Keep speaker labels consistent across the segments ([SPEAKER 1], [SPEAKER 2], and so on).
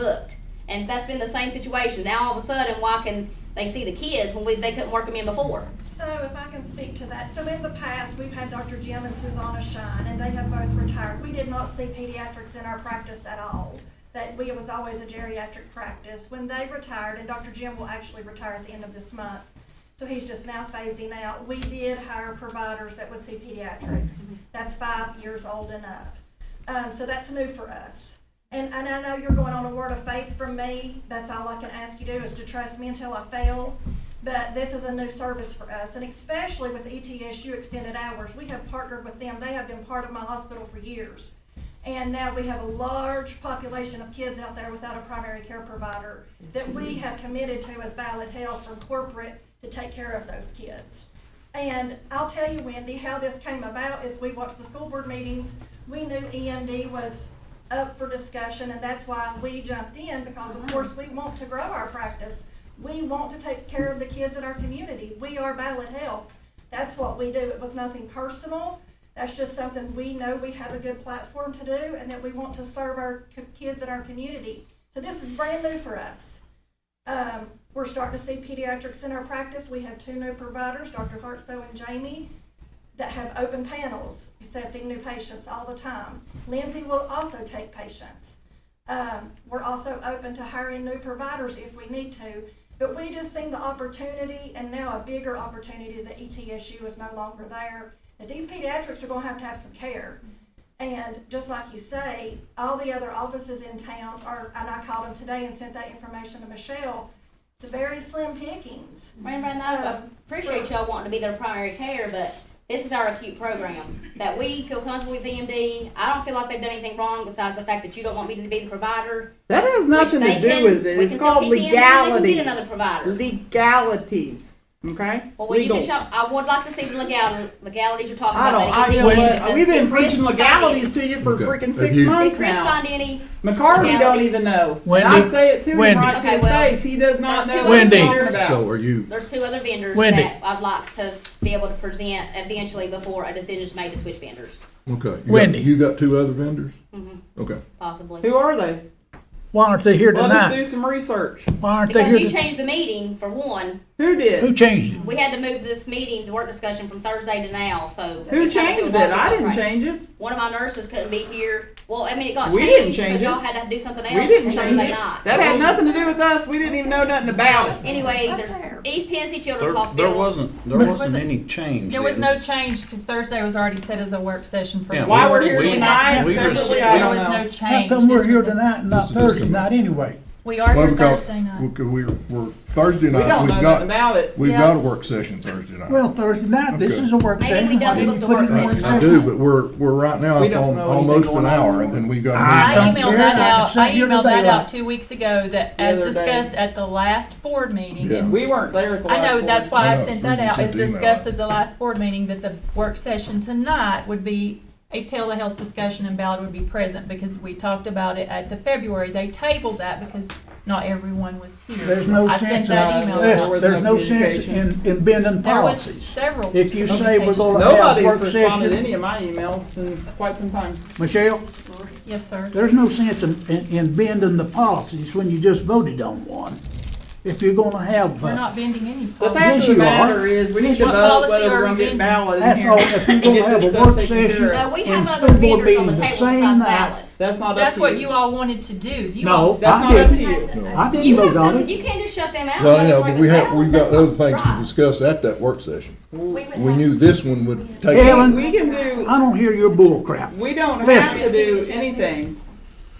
[SPEAKER 1] booked. And that's been the same situation. Now all of a sudden, why can they see the kids when we, they couldn't work them in before?
[SPEAKER 2] So if I can speak to that, so in the past, we've had Dr. Jim and Susanna Shine, and they have both retired. We did not see pediatrics in our practice at all. That we, it was always a geriatric practice. When they retired, and Dr. Jim will actually retire at the end of this month, so he's just now phasing out, we did hire providers that would see pediatrics. That's five years old and up. Um, so that's new for us. And, and I know you're going on a word of faith from me. That's all I can ask you to do is to trust me until I fail. But this is a new service for us, and especially with E ETSU Extended Hours, we have partnered with them. They have been part of my hospital for years. And now we have a large population of kids out there without a primary care provider that we have committed to as Ballot Health from corporate to take care of those kids. And I'll tell you, Wendy, how this came about is we watched the school board meetings. We knew EMD was up for discussion, and that's why we jumped in, because of course, we want to grow our practice. We want to take care of the kids in our community. We are Ballot Health. That's what we do. It was nothing personal. That's just something we know we have a good platform to do and that we want to serve our co- kids in our community. So this is brand new for us. Um, we're starting to see pediatrics in our practice. We have two new providers, Dr. Hartsoe and Jamie, that have open panels accepting new patients all the time. Lindsay will also take patients. Um, we're also open to hiring new providers if we need to, but we just seen the opportunity and now a bigger opportunity that E ETSU is no longer there. That these pediatrics are gonna have to have some care. And just like you say, all the other offices in town are, and I called them today and sent that information to Michelle. It's very slim pickings.
[SPEAKER 1] Right, right now,
[SPEAKER 3] Uh,
[SPEAKER 1] I appreciate y'all wanting to be their primary care, but this is our acute program that we feel comfortable with EMD. I don't feel like they've done anything wrong besides the fact that you don't want me to be the provider.
[SPEAKER 3] That has
[SPEAKER 1] which
[SPEAKER 3] nothing
[SPEAKER 1] they
[SPEAKER 3] to do
[SPEAKER 1] can-
[SPEAKER 3] with it.
[SPEAKER 1] we
[SPEAKER 3] It's
[SPEAKER 1] can still
[SPEAKER 3] called
[SPEAKER 1] keep EMD, they can get
[SPEAKER 3] legalities.
[SPEAKER 1] Another provider.
[SPEAKER 3] Legalities. Okay?
[SPEAKER 1] Well, when you
[SPEAKER 3] Legal.
[SPEAKER 1] can show, I would like to see the legality, legalities you're talking
[SPEAKER 3] I
[SPEAKER 1] about.
[SPEAKER 3] don't. I,
[SPEAKER 1] that
[SPEAKER 3] you know
[SPEAKER 1] EMD
[SPEAKER 3] what?
[SPEAKER 1] because
[SPEAKER 3] We've been
[SPEAKER 1] did Chris
[SPEAKER 3] preaching
[SPEAKER 1] find
[SPEAKER 3] legalities to you for
[SPEAKER 4] Okay.
[SPEAKER 3] freaking
[SPEAKER 4] Have
[SPEAKER 3] six
[SPEAKER 4] you-
[SPEAKER 1] any-
[SPEAKER 3] months
[SPEAKER 1] Did Chris
[SPEAKER 3] now.
[SPEAKER 1] find any?
[SPEAKER 3] McCarvey don't
[SPEAKER 1] legalities?
[SPEAKER 3] even know.
[SPEAKER 5] Wendy-
[SPEAKER 3] and I say it to him
[SPEAKER 5] Wendy-
[SPEAKER 3] right to his
[SPEAKER 1] Okay, well,
[SPEAKER 3] face. He does not
[SPEAKER 1] there's
[SPEAKER 3] know
[SPEAKER 1] two
[SPEAKER 3] what he's
[SPEAKER 5] Wendy.
[SPEAKER 3] talking about.
[SPEAKER 4] So are you,
[SPEAKER 1] There's two other vendors
[SPEAKER 5] Wendy.
[SPEAKER 1] that I'd like to be able to present eventually before a decision is made to switch vendors,
[SPEAKER 4] okay. you got-
[SPEAKER 5] Wendy.
[SPEAKER 4] You got two other vendors?
[SPEAKER 1] Mhm.
[SPEAKER 3] Mm-hmm.
[SPEAKER 4] Okay.
[SPEAKER 1] possibly.
[SPEAKER 3] Who are they?
[SPEAKER 5] Why aren't they here
[SPEAKER 3] Let us do
[SPEAKER 5] tonight?
[SPEAKER 3] some research.
[SPEAKER 5] Why aren't they
[SPEAKER 1] Because
[SPEAKER 5] here?
[SPEAKER 1] you
[SPEAKER 5] to-
[SPEAKER 1] changed the meeting for one,
[SPEAKER 3] Who
[SPEAKER 5] Who
[SPEAKER 3] did?
[SPEAKER 5] changed it?
[SPEAKER 1] we had to move this meeting, the work discussion from Thursday to now, so.
[SPEAKER 3] Who
[SPEAKER 1] we tried to do
[SPEAKER 3] changed
[SPEAKER 1] a lot
[SPEAKER 3] it?
[SPEAKER 1] of
[SPEAKER 3] I
[SPEAKER 1] different
[SPEAKER 3] didn't
[SPEAKER 1] things.
[SPEAKER 3] change it.
[SPEAKER 1] One of my nurses couldn't be here, well, I mean, it got
[SPEAKER 3] We didn't
[SPEAKER 1] changed
[SPEAKER 3] change
[SPEAKER 1] because
[SPEAKER 3] it.
[SPEAKER 1] y'all had to do something else
[SPEAKER 3] We didn't
[SPEAKER 1] Thursday
[SPEAKER 3] change it.
[SPEAKER 1] night.
[SPEAKER 3] That had nothing to do with us. We didn't even know nothing about it.
[SPEAKER 1] Anyway,
[SPEAKER 2] Up
[SPEAKER 1] there's
[SPEAKER 2] there.
[SPEAKER 1] East Tennessee
[SPEAKER 6] There,
[SPEAKER 1] Children's
[SPEAKER 6] there
[SPEAKER 1] Hospital.
[SPEAKER 6] wasn't, there wasn't
[SPEAKER 7] Wasn't-
[SPEAKER 6] any change.
[SPEAKER 7] There was
[SPEAKER 6] then.
[SPEAKER 7] no change because Thursday was already set as a work session for.
[SPEAKER 6] Yeah,
[SPEAKER 7] the
[SPEAKER 3] Why
[SPEAKER 6] we-
[SPEAKER 3] we're
[SPEAKER 7] board.
[SPEAKER 3] here
[SPEAKER 6] we-
[SPEAKER 3] tonight
[SPEAKER 6] we were
[SPEAKER 3] separately,
[SPEAKER 6] sitting-
[SPEAKER 3] I
[SPEAKER 7] There
[SPEAKER 3] don't
[SPEAKER 7] was no
[SPEAKER 3] know.
[SPEAKER 5] How
[SPEAKER 7] change.
[SPEAKER 5] come we're
[SPEAKER 7] This
[SPEAKER 5] here
[SPEAKER 7] was a-
[SPEAKER 5] tonight and
[SPEAKER 4] This
[SPEAKER 5] not
[SPEAKER 4] is just
[SPEAKER 5] Thursday
[SPEAKER 4] coming.
[SPEAKER 5] night anyway?
[SPEAKER 7] We are
[SPEAKER 4] Well,
[SPEAKER 7] here
[SPEAKER 4] because
[SPEAKER 7] Thursday
[SPEAKER 4] we-
[SPEAKER 7] night.
[SPEAKER 4] We're, we're, Thursday
[SPEAKER 3] We
[SPEAKER 4] night,
[SPEAKER 3] don't
[SPEAKER 4] we've
[SPEAKER 3] know nothing
[SPEAKER 4] got,
[SPEAKER 3] about it.
[SPEAKER 4] we've
[SPEAKER 7] Yeah.
[SPEAKER 4] got a work session Thursday night.
[SPEAKER 5] Well, Thursday night, this
[SPEAKER 4] Okay.
[SPEAKER 5] is a work
[SPEAKER 1] Maybe we
[SPEAKER 5] session. Why
[SPEAKER 1] double
[SPEAKER 5] didn't
[SPEAKER 1] booked
[SPEAKER 5] you
[SPEAKER 1] the
[SPEAKER 5] put it
[SPEAKER 1] work
[SPEAKER 5] in
[SPEAKER 4] I
[SPEAKER 1] session.
[SPEAKER 4] I do, but we're, we're right now
[SPEAKER 3] We
[SPEAKER 4] up
[SPEAKER 3] don't
[SPEAKER 4] on
[SPEAKER 3] know anything
[SPEAKER 4] almost an
[SPEAKER 3] going on.
[SPEAKER 4] hour and then we got.
[SPEAKER 5] I
[SPEAKER 7] I
[SPEAKER 4] another-
[SPEAKER 5] don't care.
[SPEAKER 7] emailed that
[SPEAKER 5] It's not
[SPEAKER 7] out, I
[SPEAKER 5] here
[SPEAKER 7] emailed that
[SPEAKER 5] today,
[SPEAKER 7] out
[SPEAKER 5] like-
[SPEAKER 7] two weeks ago that
[SPEAKER 3] The
[SPEAKER 7] as
[SPEAKER 3] other day.
[SPEAKER 7] discussed at the last board meeting.
[SPEAKER 4] Yeah.
[SPEAKER 7] and
[SPEAKER 3] We weren't there at the
[SPEAKER 7] I
[SPEAKER 3] last
[SPEAKER 7] know,
[SPEAKER 3] board
[SPEAKER 7] that's why
[SPEAKER 4] I
[SPEAKER 7] I
[SPEAKER 4] know,
[SPEAKER 7] sent
[SPEAKER 4] Susan
[SPEAKER 7] that out,
[SPEAKER 4] sent
[SPEAKER 7] as
[SPEAKER 4] the email
[SPEAKER 7] discussed
[SPEAKER 4] out.
[SPEAKER 7] at the last board meeting, that the work session tonight would be a telehealth discussion and ballot would be present because we talked about it at the February. They tabled that because not everyone was here.
[SPEAKER 5] There's no
[SPEAKER 7] I
[SPEAKER 5] sense
[SPEAKER 7] sent that
[SPEAKER 5] in-
[SPEAKER 7] email
[SPEAKER 3] There
[SPEAKER 7] out.
[SPEAKER 5] Listen,
[SPEAKER 3] was
[SPEAKER 5] there's
[SPEAKER 3] no
[SPEAKER 5] no sense in,
[SPEAKER 3] communication.
[SPEAKER 5] in bending
[SPEAKER 7] There was
[SPEAKER 5] policies.
[SPEAKER 7] several.
[SPEAKER 5] If you say we're
[SPEAKER 7] communications.
[SPEAKER 5] gonna have a
[SPEAKER 3] Nobody's
[SPEAKER 5] work
[SPEAKER 3] responded to
[SPEAKER 5] session,
[SPEAKER 3] any of my emails since quite some time.
[SPEAKER 5] Michelle,
[SPEAKER 7] Yes, sir.
[SPEAKER 5] there's no sense in, in, in bending the policies when you just voted on one. If you're gonna have,
[SPEAKER 7] We're
[SPEAKER 5] uh,
[SPEAKER 7] not bending any
[SPEAKER 3] The
[SPEAKER 7] policy.
[SPEAKER 3] fact
[SPEAKER 5] Yes,
[SPEAKER 3] of the
[SPEAKER 5] you are.
[SPEAKER 3] matter is, we need to
[SPEAKER 7] What
[SPEAKER 3] vote
[SPEAKER 7] policy
[SPEAKER 3] whether
[SPEAKER 7] are
[SPEAKER 3] we're
[SPEAKER 7] we
[SPEAKER 3] gonna get
[SPEAKER 7] getting?
[SPEAKER 3] ballot in
[SPEAKER 5] That's
[SPEAKER 3] here.
[SPEAKER 5] all. If you're
[SPEAKER 3] and
[SPEAKER 5] gonna
[SPEAKER 3] get
[SPEAKER 5] have
[SPEAKER 3] this
[SPEAKER 5] a
[SPEAKER 3] stuff
[SPEAKER 5] work
[SPEAKER 3] taken
[SPEAKER 5] session-
[SPEAKER 3] care of.
[SPEAKER 1] No, we
[SPEAKER 5] And
[SPEAKER 1] have other
[SPEAKER 5] school board
[SPEAKER 1] vendors on the
[SPEAKER 5] meeting the
[SPEAKER 1] table
[SPEAKER 5] same
[SPEAKER 1] besides
[SPEAKER 5] night.
[SPEAKER 1] Ballot.
[SPEAKER 3] That's not up
[SPEAKER 7] That's
[SPEAKER 3] to
[SPEAKER 7] what you all wanted to do. You
[SPEAKER 5] No.
[SPEAKER 7] all
[SPEAKER 3] That's
[SPEAKER 5] I
[SPEAKER 3] not up to
[SPEAKER 5] did.
[SPEAKER 3] you.
[SPEAKER 5] I didn't
[SPEAKER 1] You have
[SPEAKER 5] vote on
[SPEAKER 1] to-
[SPEAKER 5] it.
[SPEAKER 1] You can't just shut them out.
[SPEAKER 4] Well, I
[SPEAKER 1] Let
[SPEAKER 4] know,
[SPEAKER 1] us
[SPEAKER 4] but we have,
[SPEAKER 1] reconcile.
[SPEAKER 4] we've got
[SPEAKER 1] That's not
[SPEAKER 4] other things to
[SPEAKER 1] right.
[SPEAKER 4] discuss at that work session.
[SPEAKER 1] would
[SPEAKER 4] We
[SPEAKER 1] have-
[SPEAKER 4] knew this one would take.
[SPEAKER 5] Yeah.
[SPEAKER 3] We we can do,
[SPEAKER 5] I don't hear your bull crap.
[SPEAKER 3] we don't have
[SPEAKER 5] Listen.
[SPEAKER 3] to do anything.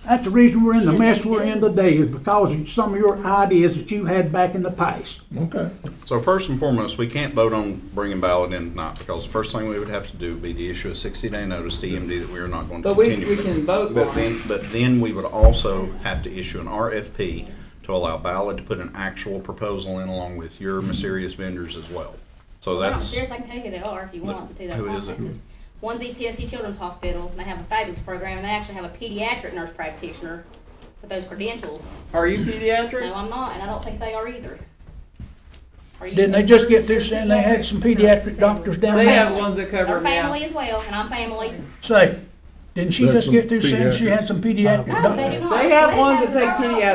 [SPEAKER 5] That's the reason we're in the mess we're in today is because of some of your ideas that you had back in the past.
[SPEAKER 4] Okay.
[SPEAKER 6] So first and foremost, we can't vote on bringing ballot in tonight because the first thing we would have to do would be the issue of sixty day notice to EMD that we are not going to
[SPEAKER 3] But we-
[SPEAKER 6] continue.
[SPEAKER 3] we
[SPEAKER 6] with.
[SPEAKER 3] can vote
[SPEAKER 6] But
[SPEAKER 3] on
[SPEAKER 6] then, but then we would also have to issue an RFP to allow ballot to put an actual proposal in along with your
[SPEAKER 3] Mm-hmm.
[SPEAKER 6] mysterious vendors as well. So
[SPEAKER 1] Well,
[SPEAKER 6] that's,
[SPEAKER 1] Downstairs, I can tell you who they are if you want to do that.
[SPEAKER 6] Who is it?
[SPEAKER 1] One's East Tennessee Children's Hospital, and they have a fabulous program, and they actually have a pediatric nurse practitioner with those credentials.
[SPEAKER 3] Are you pediatric?
[SPEAKER 1] No, I'm not, and I don't think they are either. Are you-
[SPEAKER 5] Didn't they just get through saying they had some pediatric doctors down
[SPEAKER 3] They
[SPEAKER 5] there?
[SPEAKER 3] have ones that cover
[SPEAKER 1] They're
[SPEAKER 3] them now.
[SPEAKER 1] family as well, and I'm family.
[SPEAKER 5] Say,
[SPEAKER 4] Didn't she
[SPEAKER 8] That's
[SPEAKER 4] just get
[SPEAKER 8] some
[SPEAKER 4] through saying she
[SPEAKER 8] pediatric.
[SPEAKER 4] had some pediatric
[SPEAKER 5] No, they
[SPEAKER 4] doctors?
[SPEAKER 5] do not.
[SPEAKER 1] Oh, They have ones that
[SPEAKER 5] the
[SPEAKER 1] take
[SPEAKER 5] right-
[SPEAKER 1] pediatric